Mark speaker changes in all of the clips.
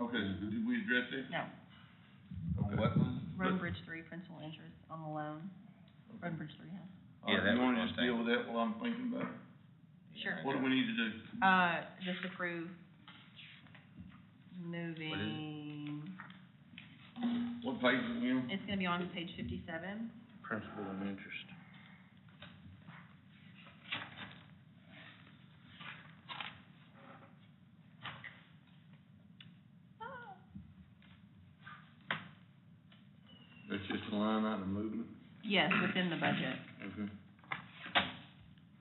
Speaker 1: Okay, did we address that?
Speaker 2: No,
Speaker 1: Okay.
Speaker 3: What was?
Speaker 2: Road and Bridge Three, principal interest on the loan, Road and Bridge Three, yeah.
Speaker 1: All right,
Speaker 3: Yeah, that
Speaker 1: you
Speaker 3: was
Speaker 1: wanna
Speaker 3: one
Speaker 1: just
Speaker 3: thing.
Speaker 1: deal with that while I'm thinking about it?
Speaker 2: Sure.
Speaker 1: What do we need to do?
Speaker 2: Uh, just approve moving,
Speaker 1: What page are we on?
Speaker 2: it's gonna be on page fifty-seven.
Speaker 4: principal and interest.
Speaker 1: That's just a line item movement.
Speaker 2: Yes, within the budget.
Speaker 1: Okay.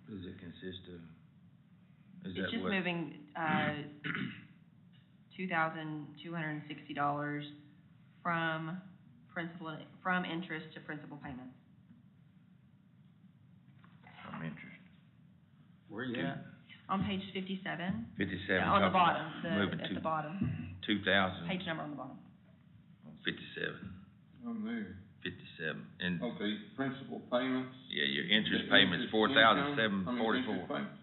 Speaker 3: Does it consist of?
Speaker 2: It's
Speaker 3: Is that
Speaker 2: just
Speaker 3: what?
Speaker 2: moving, uh, two thousand two hundred and sixty dollars from principal, from interest to principal payment.
Speaker 3: I'm interested.
Speaker 4: Where you at?
Speaker 2: On page fifty-seven,
Speaker 3: Fifty-seven.
Speaker 2: on the
Speaker 3: talking about
Speaker 2: bottom, the,
Speaker 3: Moving
Speaker 2: at
Speaker 3: two,
Speaker 2: the bottom,
Speaker 3: two thousand,
Speaker 2: page number on the bottom.
Speaker 3: fifty-seven,
Speaker 1: I'm there.
Speaker 3: fifty-seven, and,
Speaker 1: Okay, principal payments.
Speaker 3: yeah, your interest
Speaker 1: The Oh.
Speaker 3: payment's
Speaker 1: interest
Speaker 3: four thousand
Speaker 1: income, I
Speaker 3: seven
Speaker 1: mean, interest
Speaker 3: forty-four.
Speaker 1: payments.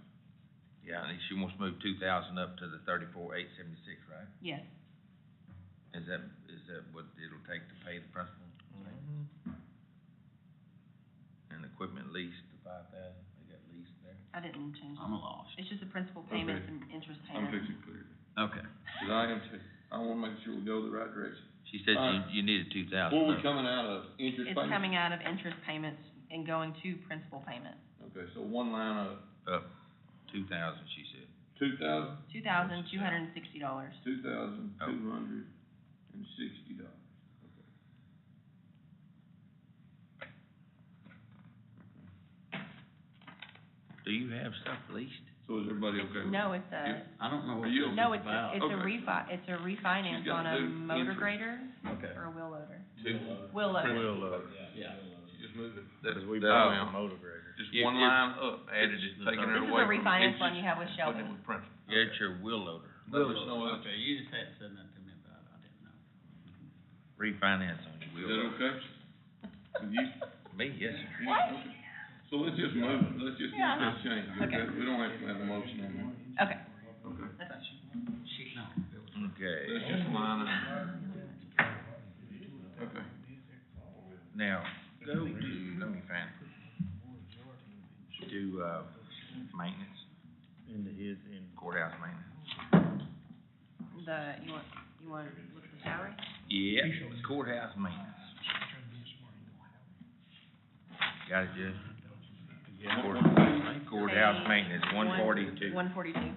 Speaker 3: Yeah, and she wants to move two thousand up to the thirty-four eight seventy-six, right?
Speaker 2: Yes,
Speaker 3: Is that, is that what it'll take to pay the principal? And equipment lease, the five thousand, they got leased there?
Speaker 2: I didn't change it.
Speaker 4: I'm lost.
Speaker 2: It's just the principal payments
Speaker 1: Okay.
Speaker 2: and interest
Speaker 1: I'm
Speaker 2: payments.
Speaker 1: fixing clear.
Speaker 4: Okay.
Speaker 1: Cause I am too. I wanna make sure we go the right direction.
Speaker 3: She said
Speaker 1: Uh,
Speaker 3: you, you needed two
Speaker 1: Where we
Speaker 3: thousand.
Speaker 1: coming out of? Interest
Speaker 2: It's
Speaker 1: payments?
Speaker 2: coming out of interest payments and going to principal payment.
Speaker 1: Okay, so one line of
Speaker 3: Up, two thousand, she said.
Speaker 1: two thousand,
Speaker 2: Two thousand two hundred and sixty dollars.
Speaker 1: two thousand, two hundred and sixty dollars.
Speaker 3: Do you have stuff leased?
Speaker 1: So is everybody okay? with
Speaker 2: No, it's a,
Speaker 4: I don't know what
Speaker 1: Are
Speaker 4: this
Speaker 1: you-
Speaker 4: is
Speaker 2: no, it's a,
Speaker 4: about.
Speaker 2: it's a
Speaker 1: Okay.
Speaker 2: refi, it's a
Speaker 1: She's
Speaker 2: refinance on
Speaker 1: got
Speaker 2: a
Speaker 1: to do
Speaker 2: motor
Speaker 1: interest.
Speaker 2: grader
Speaker 3: Okay.
Speaker 2: or a wheel loader.
Speaker 1: Two.
Speaker 2: Wheel loader.
Speaker 5: We'll, uh,
Speaker 4: Yeah.
Speaker 1: Just move it.
Speaker 5: cause we
Speaker 1: that
Speaker 5: bought
Speaker 3: uh,
Speaker 1: amount.
Speaker 5: a motor grader.
Speaker 1: Just
Speaker 3: You-
Speaker 1: one
Speaker 3: you-
Speaker 1: line up, added
Speaker 5: it's the
Speaker 1: it, taking
Speaker 5: third.
Speaker 1: it
Speaker 2: This is
Speaker 1: away
Speaker 2: a
Speaker 1: from
Speaker 2: refinance one you
Speaker 1: interest,
Speaker 2: have with
Speaker 1: putting it
Speaker 2: Sheldon.
Speaker 1: with principal.
Speaker 3: You got your wheel loader.
Speaker 1: Let us know that.
Speaker 4: Okay, you just had said that to me about it, I didn't know.
Speaker 3: Refinance on your
Speaker 1: Is
Speaker 3: wheel loader.
Speaker 1: that okay? With you?
Speaker 3: Me, yes, sir.
Speaker 1: You- okay. So let's just move, it. let's just
Speaker 2: Yeah.
Speaker 1: make this change, okay?
Speaker 2: Okay.
Speaker 1: We don't have to have a motion on that.
Speaker 2: Okay,
Speaker 1: Okay.
Speaker 2: that's fine.
Speaker 4: She, no, it was.
Speaker 3: Okay,
Speaker 1: Let's just line it. Okay.
Speaker 3: now, go to, let me find. Do, uh, maintenance,
Speaker 5: Into his, in,
Speaker 3: courthouse maintenance.
Speaker 2: The, you want, you want to look at the salary?
Speaker 3: Yeah, courthouse maintenance. Got it, Judge? Court- Courthouse maintenance, one forty-two.
Speaker 2: One forty-two.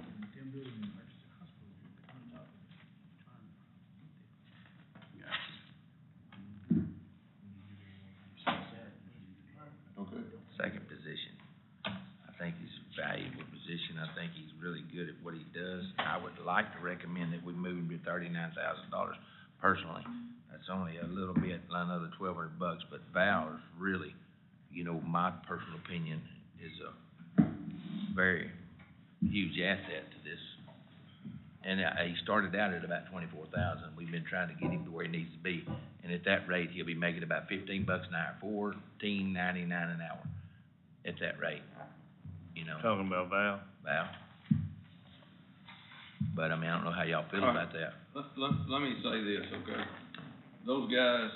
Speaker 1: Okay.
Speaker 3: second position. I think he's a valuable position, I think he's really good at what he does. I would like to recommend that we move him to thirty-nine thousand dollars personally. That's only a little bit, another twelve hundred bucks, but Val is really, you know, my personal opinion, is a very huge asset to this. And, uh, he started out at about twenty-four thousand, we've been trying to get him to where he needs to be. And at that rate, he'll be making about fifteen bucks an hour, fourteen ninety-nine an hour, at that rate, you know,
Speaker 5: talking about Val.
Speaker 3: Val. But, I mean, I don't know how y'all feel
Speaker 1: All right.
Speaker 3: about that.
Speaker 1: Let, let, let me say this, okay? Those guys,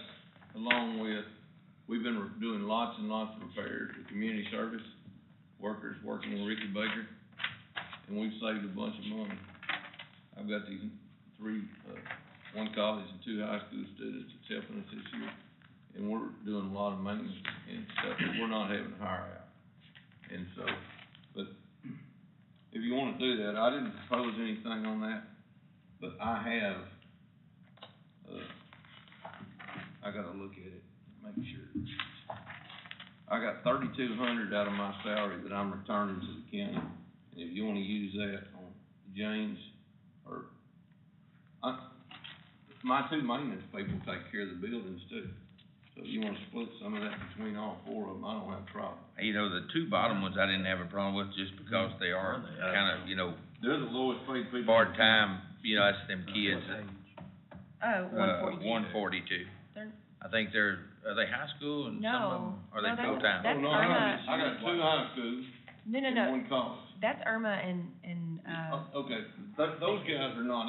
Speaker 1: along with, we've been re- doing lots and lots of repairs for community service, workers working with Ricky Baker, and we've saved a bunch of money. I've got these three, uh, one college and two high school students that's helping us this year, and we're doing a lot of maintenance and stuff, that we're not having to hire out. And so, but if you wanna do that, I didn't propose anything on that, but I have, uh, I gotta look at it, make sure. I got thirty-two hundred out of my salary that I'm returning to the county, and if you wanna use that on James, or, I, my two maintenance people take care of the buildings too. So if you wanna split some of that between all four of them, I don't have a problem.
Speaker 3: You know, the two bottom ones I didn't have a problem with, just because they are
Speaker 1: Uh,
Speaker 3: kind of, you know,
Speaker 1: They're the lowest paid people.
Speaker 3: part-time, you know, that's them kids,
Speaker 2: Oh, one
Speaker 3: uh,
Speaker 2: forty-two.
Speaker 3: one forty-two.
Speaker 2: They're-
Speaker 3: I think they're, are they high school and some of them,
Speaker 2: No. No,
Speaker 3: are they
Speaker 2: that's-
Speaker 3: full-time?
Speaker 2: that's
Speaker 1: Oh, no, I got- I got two high schools
Speaker 2: No, no,
Speaker 1: and
Speaker 2: no,
Speaker 1: one college. Oh,
Speaker 2: that's Irma and, and, uh.
Speaker 1: Okay, th- those guys are not